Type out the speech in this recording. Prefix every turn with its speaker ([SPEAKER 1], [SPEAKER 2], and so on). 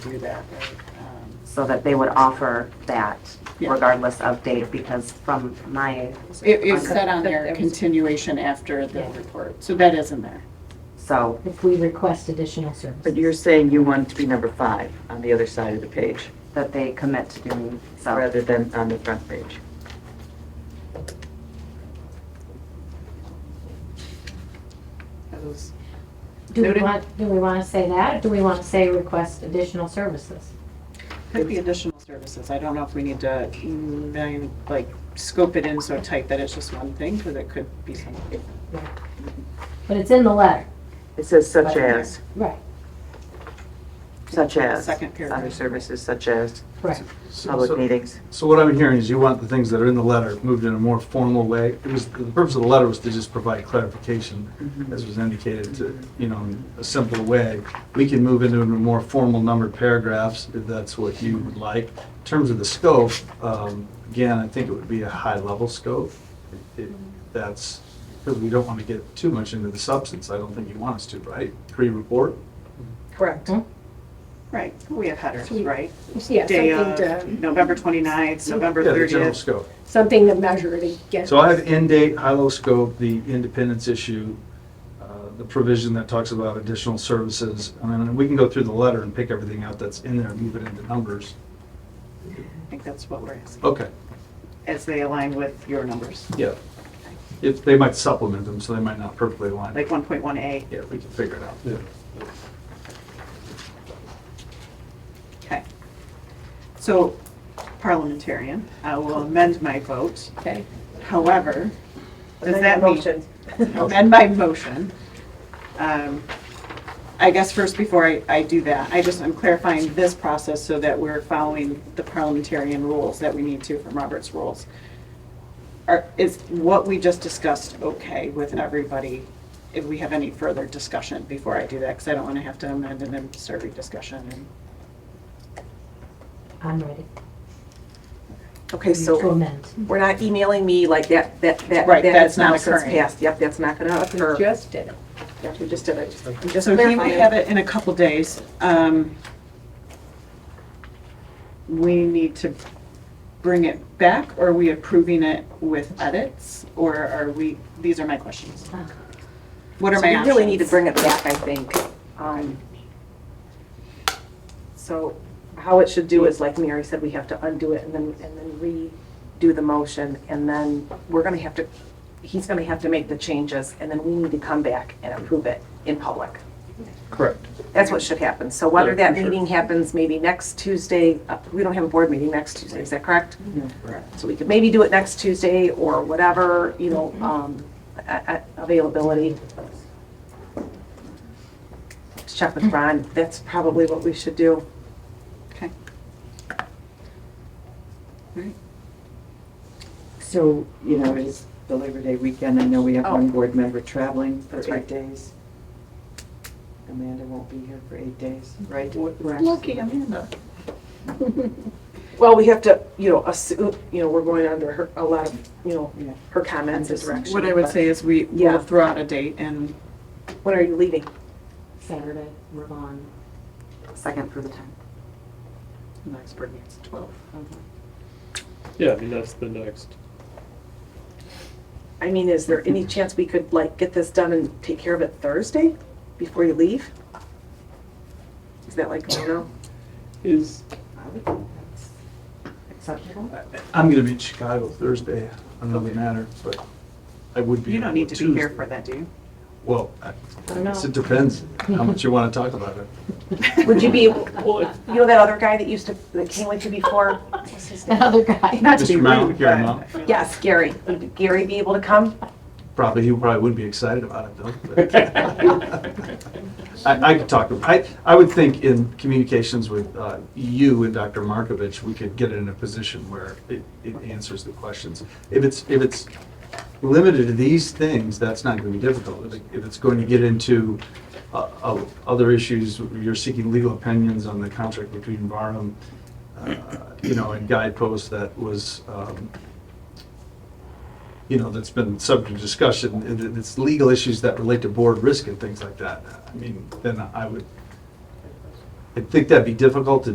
[SPEAKER 1] do that, right? Um,
[SPEAKER 2] so that they would offer that
[SPEAKER 1] Yeah.
[SPEAKER 2] regardless of date, because from my,
[SPEAKER 1] It is set on there, continuation after the report, so that is in there.
[SPEAKER 2] so,
[SPEAKER 3] if we request additional
[SPEAKER 4] But
[SPEAKER 3] services.
[SPEAKER 4] you're saying you want it to be number five on the other side of the page,
[SPEAKER 2] that they commit to doing so.
[SPEAKER 4] rather than on the front page.
[SPEAKER 3] Do we
[SPEAKER 1] Noted.
[SPEAKER 3] want, do we want to say that, or do we want to say request additional services?
[SPEAKER 1] Could be additional services, I don't know if we need to, mm, I mean, like, scope it in so tight that it's just one thing, because it could be something.
[SPEAKER 3] But it's in the letter.
[SPEAKER 4] It says such as,
[SPEAKER 3] Right.
[SPEAKER 4] such as.
[SPEAKER 1] Second paragraph.
[SPEAKER 4] Other services such as
[SPEAKER 3] Right.
[SPEAKER 5] So-
[SPEAKER 4] public
[SPEAKER 5] so-
[SPEAKER 4] meetings.
[SPEAKER 5] So what I'm hearing is you want the things that are in the letter moved in a more formal way. It was, the purpose of the letter was to just provide clarification, as was indicated, to, you know, in a simpler way. We can move into a more formal numbered paragraphs if that's what you would like. In terms of the scope, um, again, I think it would be a high-level scope. It- That's, because we don't want to get too much into the substance. I don't think you want us to, right? Pre-report?
[SPEAKER 6] Correct.
[SPEAKER 1] Right, we have headers, right?
[SPEAKER 6] Yeah,
[SPEAKER 1] Day
[SPEAKER 6] something
[SPEAKER 1] of,
[SPEAKER 6] to,
[SPEAKER 1] November 29th, November
[SPEAKER 5] Yeah, the general
[SPEAKER 1] 30th.
[SPEAKER 5] scope.
[SPEAKER 6] something to measure it against.
[SPEAKER 5] So I have end date, high-low scope, the independence issue, uh, the provision that talks about additional services. I mean, we can go through the letter and pick everything out that's in there and move it into numbers.
[SPEAKER 1] I think that's what we're asking,
[SPEAKER 5] Okay,
[SPEAKER 1] as they align with your numbers,
[SPEAKER 5] yeah. If, they might supplement them, so they might not perfectly align.
[SPEAKER 1] like 1.1A.
[SPEAKER 5] Yeah, we can figure it out.
[SPEAKER 1] Okay. So parliamentarian, I will amend my vote.
[SPEAKER 6] Okay.
[SPEAKER 1] However, does
[SPEAKER 6] Amend
[SPEAKER 1] that
[SPEAKER 6] your
[SPEAKER 1] mean?
[SPEAKER 6] motion.
[SPEAKER 1] amend my motion. Um, I guess first, before I, I do that, I just, I'm clarifying this process so that we're following the parliamentarian rules that we need to from Robert's rules. Are, is what we just discussed okay with everybody? If we have any further discussion before I do that, because I don't want to have to amend and then start rediscussion and.
[SPEAKER 3] I'm ready
[SPEAKER 7] Okay,
[SPEAKER 3] to
[SPEAKER 7] so
[SPEAKER 3] amend.
[SPEAKER 7] we're not emailing me like that, that, that,
[SPEAKER 1] Right,
[SPEAKER 7] that
[SPEAKER 1] that's
[SPEAKER 7] is now
[SPEAKER 1] not
[SPEAKER 7] since
[SPEAKER 1] occurring.
[SPEAKER 7] passed. Yep, that's not gonna
[SPEAKER 6] We
[SPEAKER 7] occur.
[SPEAKER 6] just did it.
[SPEAKER 7] Yep, we just did it. Just- I'm just
[SPEAKER 1] So he will
[SPEAKER 7] clarifying.
[SPEAKER 1] have it in a couple days. Um, We need to bring it back, or are we approving it with edits? Or are we, these are my questions. What are
[SPEAKER 7] So
[SPEAKER 1] my
[SPEAKER 7] we
[SPEAKER 1] options?
[SPEAKER 7] really need to bring it back, I think. Um, So how it should do is, like Mary said, we have to undo it and then, and then redo the motion. And then we're gonna have to, he's gonna have to make the changes and then we need to come back and approve it in public.
[SPEAKER 5] Correct.
[SPEAKER 7] That's what should happen. So whether
[SPEAKER 5] Yeah,
[SPEAKER 7] that
[SPEAKER 5] for sure.
[SPEAKER 7] meeting happens maybe next Tuesday, uh, we don't have a board meeting next Tuesday, is that correct? So we could maybe do it next Tuesday or whatever, you know,
[SPEAKER 1] Mm-hmm.
[SPEAKER 7] um, a- a- availability. Let's Check with Ron, that's probably what we should do.
[SPEAKER 1] Okay.
[SPEAKER 4] So, you know, it is the Labor Day weekend. I know we have one board member traveling for
[SPEAKER 7] Oh. That's
[SPEAKER 4] eight
[SPEAKER 7] right.
[SPEAKER 4] days. Amanda won't be here for eight days, right?
[SPEAKER 1] Lucky Amanda.
[SPEAKER 7] Well, we have to, you know, assume, you know, we're going under her, a lot of, you know,
[SPEAKER 4] Yeah.
[SPEAKER 7] her comments and direction.
[SPEAKER 1] What I would
[SPEAKER 7] but-
[SPEAKER 1] say is we
[SPEAKER 7] Yeah.
[SPEAKER 1] will throw out a date and
[SPEAKER 7] When are you leaving?
[SPEAKER 2] Saturday, we're gone. Second through the time.
[SPEAKER 1] the next board meeting's 12.
[SPEAKER 8] Yeah, I mean, that's the next.
[SPEAKER 7] I mean, is there any chance we could like get this done and take care of it Thursday before you leave? Is that like, oh no?
[SPEAKER 8] Is,
[SPEAKER 2] Acceptable?
[SPEAKER 5] I'm going to be in Chicago Thursday. I don't know if it matters, but I would be.
[SPEAKER 1] You don't need to be here
[SPEAKER 5] Tuesday.
[SPEAKER 1] for that, do you?
[SPEAKER 5] Well, I
[SPEAKER 3] I don't
[SPEAKER 5] guess it
[SPEAKER 3] know.
[SPEAKER 5] depends how much you want to talk about it.
[SPEAKER 7] Would you be, you
[SPEAKER 8] well, it's-
[SPEAKER 7] know that other guy that used to, that came with you before? What's his name?
[SPEAKER 3] That other guy.
[SPEAKER 1] Not to be
[SPEAKER 5] Mr. Mount,
[SPEAKER 1] rude,
[SPEAKER 5] here,
[SPEAKER 1] but-
[SPEAKER 5] Mount.
[SPEAKER 7] Yes, Gary. Would Gary be able to come?
[SPEAKER 5] Probably, he probably wouldn't be excited about it though. but- I, I could talk to him. I, I would think in communications with uh, you and Dr. Markovich, we could get it in a position where it, it answers the questions. If it's, if it's limited to these things, that's not going to be difficult. If it- If it's going to get into uh, uh, other issues, you're seeking legal opinions on the contract between Barnum, uh, you know, and Guidepost that was um, you know, that's been subject to discussion, and it- it's legal issues that relate to board risk and things like that, I mean, then I would, I think that'd be difficult to